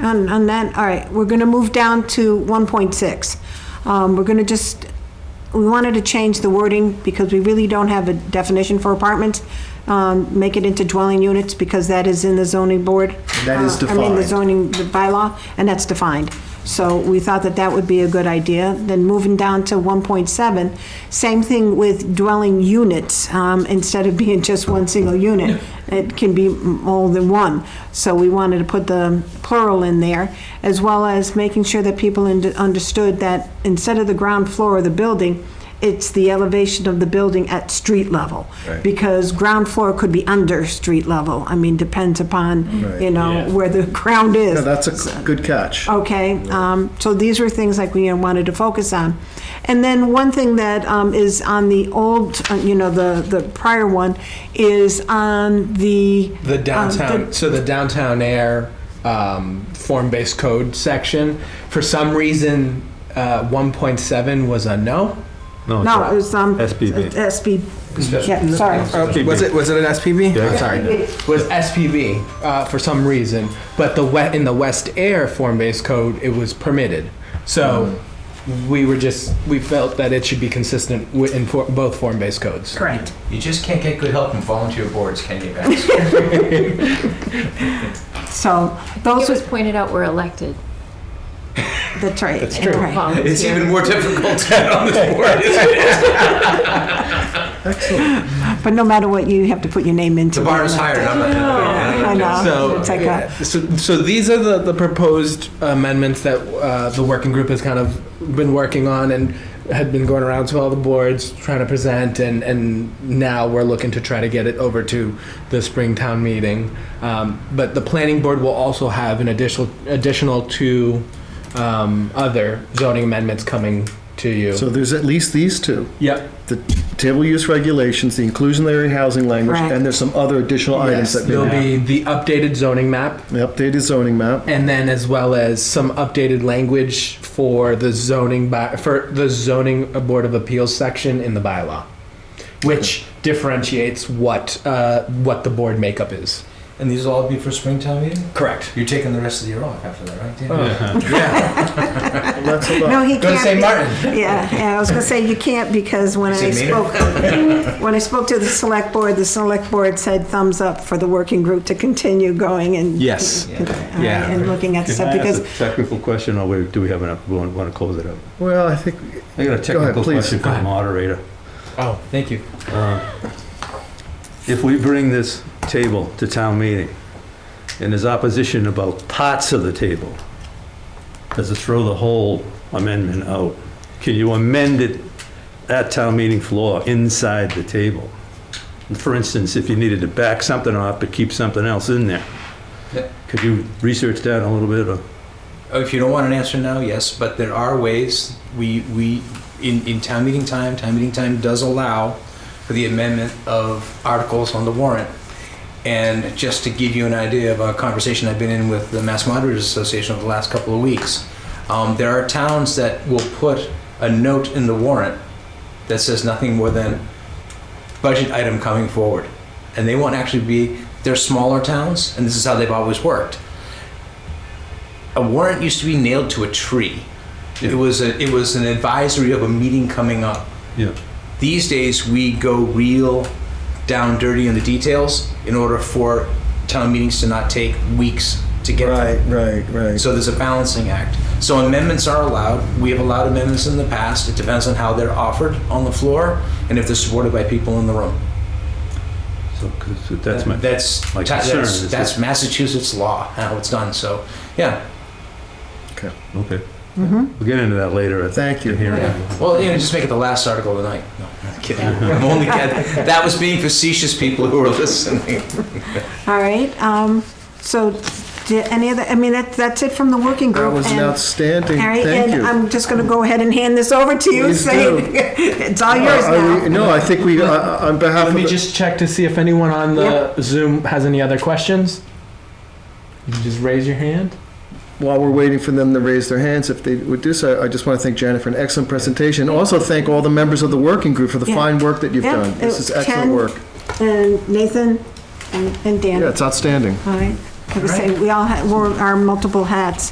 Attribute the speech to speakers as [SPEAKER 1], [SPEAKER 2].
[SPEAKER 1] on, on that, all right, we're gonna move down to one point six. Um, we're gonna just, we wanted to change the wording because we really don't have a definition for apartments. Um, make it into dwelling units because that is in the zoning board.
[SPEAKER 2] That is
[SPEAKER 1] uh, I mean, the
[SPEAKER 2] defined.
[SPEAKER 1] zoning the bylaw, and that's defined. So we thought that that would be a good idea. Then moving down to one point seven, same thing with dwelling units, um, instead of being just one single unit. It can be more than one. So we wanted to put the plural in there, as well as making sure that people und- understood that instead of the ground floor of the building, it's the elevation of the building at street level.
[SPEAKER 2] Right.
[SPEAKER 1] Because ground floor could be under street level. I mean, depends upon,
[SPEAKER 2] Right.
[SPEAKER 1] you know,
[SPEAKER 3] Yeah.
[SPEAKER 1] where the ground is. Oh.
[SPEAKER 2] No, that's a good catch.
[SPEAKER 1] Okay, um, so these were things like we wanted to focus on. And then one thing that, um, is on the old, uh, you know, the, the prior one, is on the.
[SPEAKER 4] The downtown,
[SPEAKER 1] um, the-
[SPEAKER 4] so the downtown air um, form-based code section. For some reason, uh, 1.7 was a no.
[SPEAKER 1] No, it was, um.
[SPEAKER 3] SBB.
[SPEAKER 1] SB, yeah, sorry.
[SPEAKER 3] SPB.
[SPEAKER 4] Was it was it an SPB?
[SPEAKER 3] Yeah.
[SPEAKER 4] I'm Oh, sorry. Was SPB uh, for some reason, but the wet in the West Air form-based code it was permitted. So we were just we felt that it should be consistent wi- in for, both form-based codes.
[SPEAKER 1] Correct.
[SPEAKER 5] You just can't get good help from volunteer boards, can you, guys?
[SPEAKER 1] So,
[SPEAKER 6] It
[SPEAKER 1] those
[SPEAKER 6] was
[SPEAKER 1] was,
[SPEAKER 6] pointed out we're elected.
[SPEAKER 1] that's right. That's
[SPEAKER 6] and we're volunteer.
[SPEAKER 5] It's even more difficult to get on this board, isn't it?
[SPEAKER 1] But no matter what, you have to put your name into.
[SPEAKER 5] The
[SPEAKER 1] it.
[SPEAKER 5] bar is higher, and I'm not
[SPEAKER 1] Yeah, I
[SPEAKER 5] gonna.
[SPEAKER 1] know,
[SPEAKER 4] So,
[SPEAKER 1] it's like a.
[SPEAKER 4] so, so these are the, the proposed amendments that uh, the working group has kind of been working on and had been going around to all the boards trying to present, and, and now we're looking to try to get it over to the spring town meeting. Um, but the planning board will also have an additional additional two um, other zoning amendments coming to you.
[SPEAKER 2] So there's at least these two.
[SPEAKER 4] yep.
[SPEAKER 2] The table use regulations, the inclusionary housing language,
[SPEAKER 1] Right.
[SPEAKER 2] and there's some other additional items
[SPEAKER 4] Yes,
[SPEAKER 2] that
[SPEAKER 4] there'll
[SPEAKER 2] may be.
[SPEAKER 4] be the updated zoning map
[SPEAKER 2] The updated zoning map.
[SPEAKER 4] and then as well as some updated language for the zoning by, for the zoning board of appeals section in the bylaw, which differentiates what uh, what the board makeup is.
[SPEAKER 5] And these will all be for springtime meeting?
[SPEAKER 4] Correct.
[SPEAKER 5] You're taking the rest of the year off after that, right, Dan?
[SPEAKER 2] That's a
[SPEAKER 1] No,
[SPEAKER 2] lot.
[SPEAKER 1] he can't.
[SPEAKER 5] Go to St. Martin.
[SPEAKER 1] Yeah, yeah, I was gonna say, you can't, because when I
[SPEAKER 5] Is it meaner?
[SPEAKER 1] spoke, when I spoke to the select board, the select board said thumbs up for the working group to continue going and.
[SPEAKER 4] Yes.
[SPEAKER 1] All right,
[SPEAKER 4] Yeah.
[SPEAKER 1] And looking at
[SPEAKER 3] Can
[SPEAKER 1] stuff,
[SPEAKER 3] I ask
[SPEAKER 1] because
[SPEAKER 3] a technical question, or we- do we have enough, we want to close it up?
[SPEAKER 2] Well, I think,
[SPEAKER 3] I got a technical
[SPEAKER 2] please.
[SPEAKER 3] question for
[SPEAKER 4] Go
[SPEAKER 3] the
[SPEAKER 4] ahead.
[SPEAKER 3] moderator.
[SPEAKER 4] Oh, thank you.
[SPEAKER 3] If we bring this table to town meeting, and there's opposition about parts of the table, does it throw the whole amendment out? Can you amend it at town meeting floor, inside the table? For instance, if you needed to back something off but keep something else in there,
[SPEAKER 5] Yeah.
[SPEAKER 3] could you research that a little bit, or?
[SPEAKER 5] Oh, If you don't want an answer now, yes, but there are ways, we, we, in, in town meeting time, town meeting time does allow for the amendment of articles on the warrant. And just to give you an idea of a conversation I've been in with the Mass Moderators Association over the last couple of weeks, um, there are towns that will put a note in the warrant that says nothing more than budget item coming forward. And they won't actually be, they're smaller towns, and this is how they've always worked a warrant used to be nailed to a tree. It was a, it was an advisory of a meeting coming up.
[SPEAKER 3] Yeah.
[SPEAKER 5] These days, we go real down dirty in the details in order for town meetings to not take weeks to get.
[SPEAKER 2] right, right, right.
[SPEAKER 5] So there's a balancing act. So amendments are allowed. We have allowed amendments in the past. It depends on how they're offered on the floor and if they're supported by people in the room.
[SPEAKER 3] So, 'cause that's my.
[SPEAKER 5] That's
[SPEAKER 3] my
[SPEAKER 5] ta-
[SPEAKER 3] concern
[SPEAKER 5] that's,
[SPEAKER 3] is
[SPEAKER 5] that's
[SPEAKER 3] that-
[SPEAKER 5] Massachusetts law how it's done. So yeah.
[SPEAKER 3] Okay. We'll get into that later. at the
[SPEAKER 2] Thank you.
[SPEAKER 3] hearing.
[SPEAKER 5] Well, you know, just make it the last article of the night. No, I'm kidding. I'm only that, that was being facetious, people who were listening.
[SPEAKER 1] All right, um, so, did any other, I mean, that, that's it from the working
[SPEAKER 2] That
[SPEAKER 1] group.
[SPEAKER 2] was an
[SPEAKER 1] and-
[SPEAKER 2] outstanding,
[SPEAKER 1] All right,
[SPEAKER 2] thank
[SPEAKER 1] and
[SPEAKER 2] you.
[SPEAKER 1] I'm just gonna go ahead and hand this over to you,
[SPEAKER 2] Please
[SPEAKER 1] saying,
[SPEAKER 2] do. Uh,
[SPEAKER 1] it's all
[SPEAKER 2] Are-
[SPEAKER 1] yours
[SPEAKER 2] are we-
[SPEAKER 1] now.
[SPEAKER 2] No, I think we, uh, on behalf
[SPEAKER 4] Let
[SPEAKER 2] of,
[SPEAKER 4] me
[SPEAKER 2] the-
[SPEAKER 4] just check to see if anyone on the Zoom has any other questions. You can just raise your hand.
[SPEAKER 2] while we're waiting for them to raise their hands, if they would do so, I just want to thank Janet for an excellent presentation. Also thank all the members of the working group for the
[SPEAKER 1] Yeah.
[SPEAKER 2] fine work that you've
[SPEAKER 1] Yeah,
[SPEAKER 2] done. This
[SPEAKER 1] it-
[SPEAKER 2] is excellent
[SPEAKER 1] Ken-
[SPEAKER 2] work.
[SPEAKER 1] And Nathan and and Dan.
[SPEAKER 2] Yeah, it's outstanding.
[SPEAKER 1] All right. Like I say, we all, ha- wear our multiple hats.